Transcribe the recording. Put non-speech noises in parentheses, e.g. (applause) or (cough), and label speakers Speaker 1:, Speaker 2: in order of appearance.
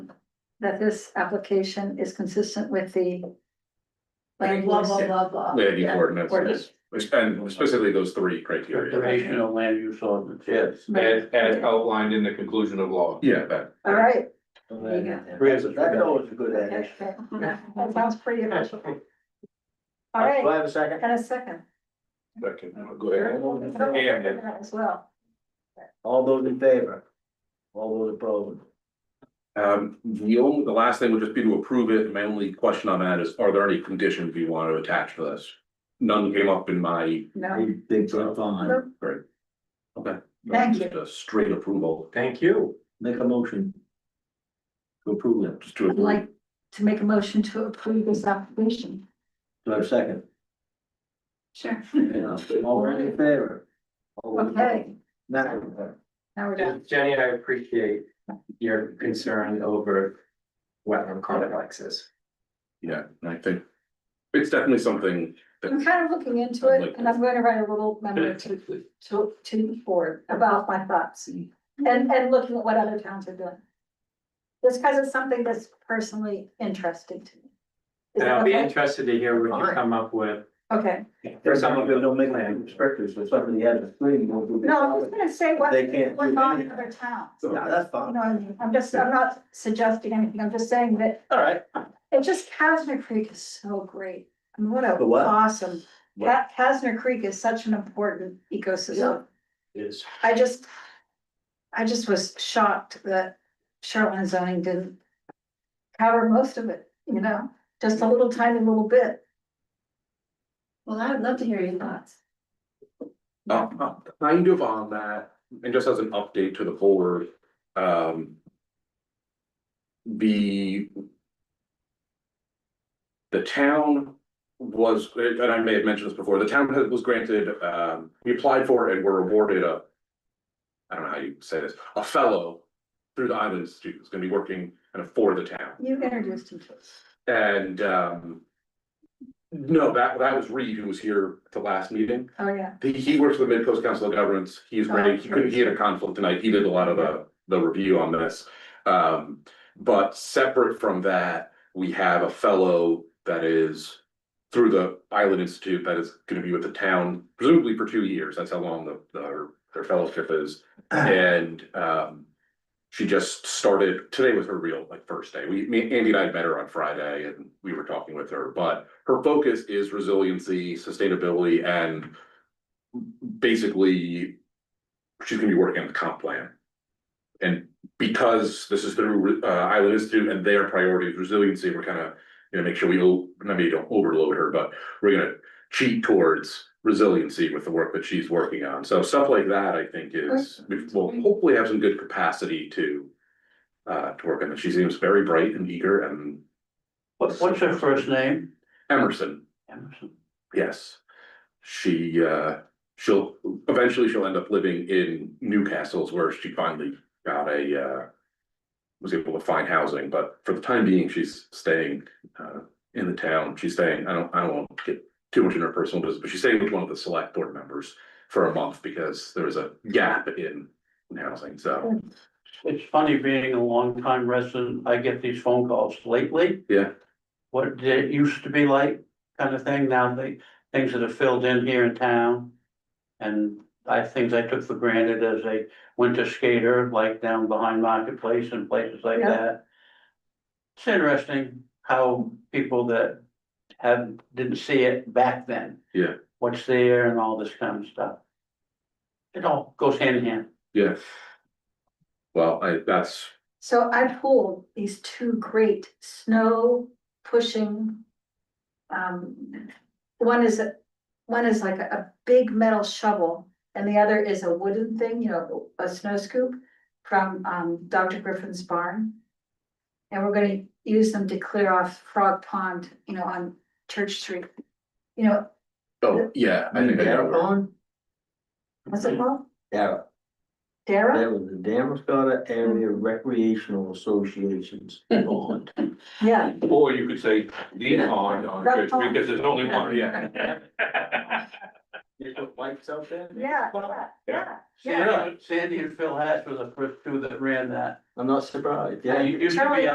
Speaker 1: that this application is consistent with the. Like blah, blah, blah, blah.
Speaker 2: Yeah, the
Speaker 1: Yeah,
Speaker 2: ordinance, which, and specifically those three criteria.
Speaker 3: Recreational land use ordinance, yes.
Speaker 1: Right.
Speaker 4: as outlined in the conclusion of law.
Speaker 2: Yeah, that,
Speaker 1: All right.
Speaker 3: That's
Speaker 1: got it.
Speaker 3: that's always a good addition.
Speaker 1: Okay. (laughs) That sounds pretty official. All
Speaker 3: Do
Speaker 1: right,
Speaker 3: I have a second?
Speaker 1: and a second.
Speaker 4: Second, go ahead.
Speaker 1: Yeah, As well.
Speaker 3: All those in favor? All those opposed?
Speaker 2: um, the only, the last thing would just be to approve it, my only question on that is, are there any conditions you want to attach to this? None came up in my,
Speaker 1: No,
Speaker 3: Big jump on.
Speaker 2: great. Okay.
Speaker 1: Thank you.
Speaker 2: Just a Straight approval,
Speaker 4: Thank you.
Speaker 3: Make a motion. To approve it.
Speaker 2: just to
Speaker 1: I'd
Speaker 2: approve,
Speaker 1: like to make a motion to approve this application.
Speaker 3: Do I have a second?
Speaker 1: Sure.
Speaker 3: Yeah. All those in favor? All those
Speaker 1: Okay,
Speaker 3: opposed? Now, uh,
Speaker 1: now we're done.
Speaker 5: Jenny, I appreciate your concern over wetland complexes.
Speaker 2: yeah, and I think. It's definitely something,
Speaker 1: I'm kind of looking into it and I'm going to write a little memo to, to, to the board about my thoughts. And, and looking at what other towns are doing. This because it's something that's personally interesting to me. Is
Speaker 5: And
Speaker 1: that
Speaker 5: I'll be
Speaker 1: okay?
Speaker 5: interested to hear what you come up with
Speaker 1: Okay,
Speaker 5: for
Speaker 3: There's some
Speaker 5: some of
Speaker 3: people
Speaker 5: the
Speaker 3: don't make land restrictors, so somebody has a screen. won't do that.
Speaker 1: no, I'm just gonna say what,
Speaker 3: They can't
Speaker 1: what
Speaker 3: do
Speaker 1: about
Speaker 3: anything.
Speaker 1: other towns. You
Speaker 3: No,
Speaker 2: so,
Speaker 3: that's
Speaker 1: know
Speaker 3: fine.
Speaker 1: what I mean? I'm just, I'm not suggesting anything, I'm just saying that
Speaker 3: All right.
Speaker 1: it just, Casner Creek is so great. I mean, what a
Speaker 3: The what?
Speaker 1: awesome,
Speaker 3: What?
Speaker 1: Ca- Casner Creek is such an important ecosystem.
Speaker 3: Is.
Speaker 1: I just, I just was shocked that shoreline zoning didn't cover most of it, you know, just a little tiny little bit.
Speaker 6: Well, I would love to hear your thoughts.
Speaker 2: uh, uh, kind of on that, and just as an update to the board, um. The. The town was, and I may have mentioned this before, the town had- was granted, um, we applied for and were awarded a. I don't know how you say this, a fellow through the Island Institute, who's gonna be working kind of for the town.
Speaker 1: You introduced him to us.
Speaker 2: And um. No, that that was Reed who was here at the last meeting.
Speaker 1: Oh, yeah.
Speaker 2: He he works with Mid Coast Council of Governments. He's ready. He couldn't, he had a conflict tonight. He did a lot of the the review on this. Um, but separate from that, we have a fellow that is. Through the Island Institute that is gonna be with the town presumably for two years. That's how long the their their fellowship is. And um. She just started, today was her real like first day. We, me, Andy and I had met her on Friday and we were talking with her, but her focus is resiliency, sustainability and basically, she's gonna be working on the comp plan. And because this is through uh Island Institute and their priority is resiliency, we're kind of, you know, make sure we, o- I mean, don't overload her, but we're gonna cheat towards resiliency with the work that she's working on. So stuff like that, I think is, we will hopefully have some good capacity to uh, to work on it. She seems very bright and eager and
Speaker 3: What, what's her first name?
Speaker 2: Emerson
Speaker 3: Emerson.
Speaker 2: Yes. She, uh, she'll, eventually she'll end up living in Newcastle's where she finally got a, uh. Was able to find housing, but for the time being, she's staying, uh, in the town. She's staying, I don't, I don't want to get too much in her personal business, but she's staying with one of the select board members. For a month because there was a gap in, in housing, so,
Speaker 3: It's funny being a longtime resident, I get these phone calls lately.
Speaker 2: Yeah.
Speaker 3: What it used to be like, kind of thing, now the things that are filled in here in town. And I, things I took for granted as a winter skater, like down behind Marketplace and places like
Speaker 1: Yeah.
Speaker 3: that. It's interesting how people that have, didn't see it back then.
Speaker 2: Yeah.
Speaker 3: What's there and all this kind of stuff. It all goes hand in hand.
Speaker 2: yeah. Well, I, that's,
Speaker 1: So I pulled these two great snow pushing. Um, one is, a one is like a a big metal shovel and the other is a wooden thing, you know, a snow scoop from um Dr. Griffin's barn. And we're gonna use them to clear off Frog Pond, you know, on Church Street. You know,
Speaker 2: oh, yeah, I think I got it.
Speaker 1: what's it called?
Speaker 3: Yeah,
Speaker 1: Mm-hmm. Dara?
Speaker 3: That was the Damascata Area Recreational Association's bond.
Speaker 1: Yeah,
Speaker 4: Or you could say the on, on, Church Street, because there's only one, yeah.
Speaker 3: They put lights out there?
Speaker 1: yeah, yeah, yeah.
Speaker 3: Sandy, Sandy and Phil Hatch were the first two that ran that. I'm not surprised,
Speaker 1: yeah.
Speaker 3: You used to
Speaker 1: Charlie
Speaker 3: be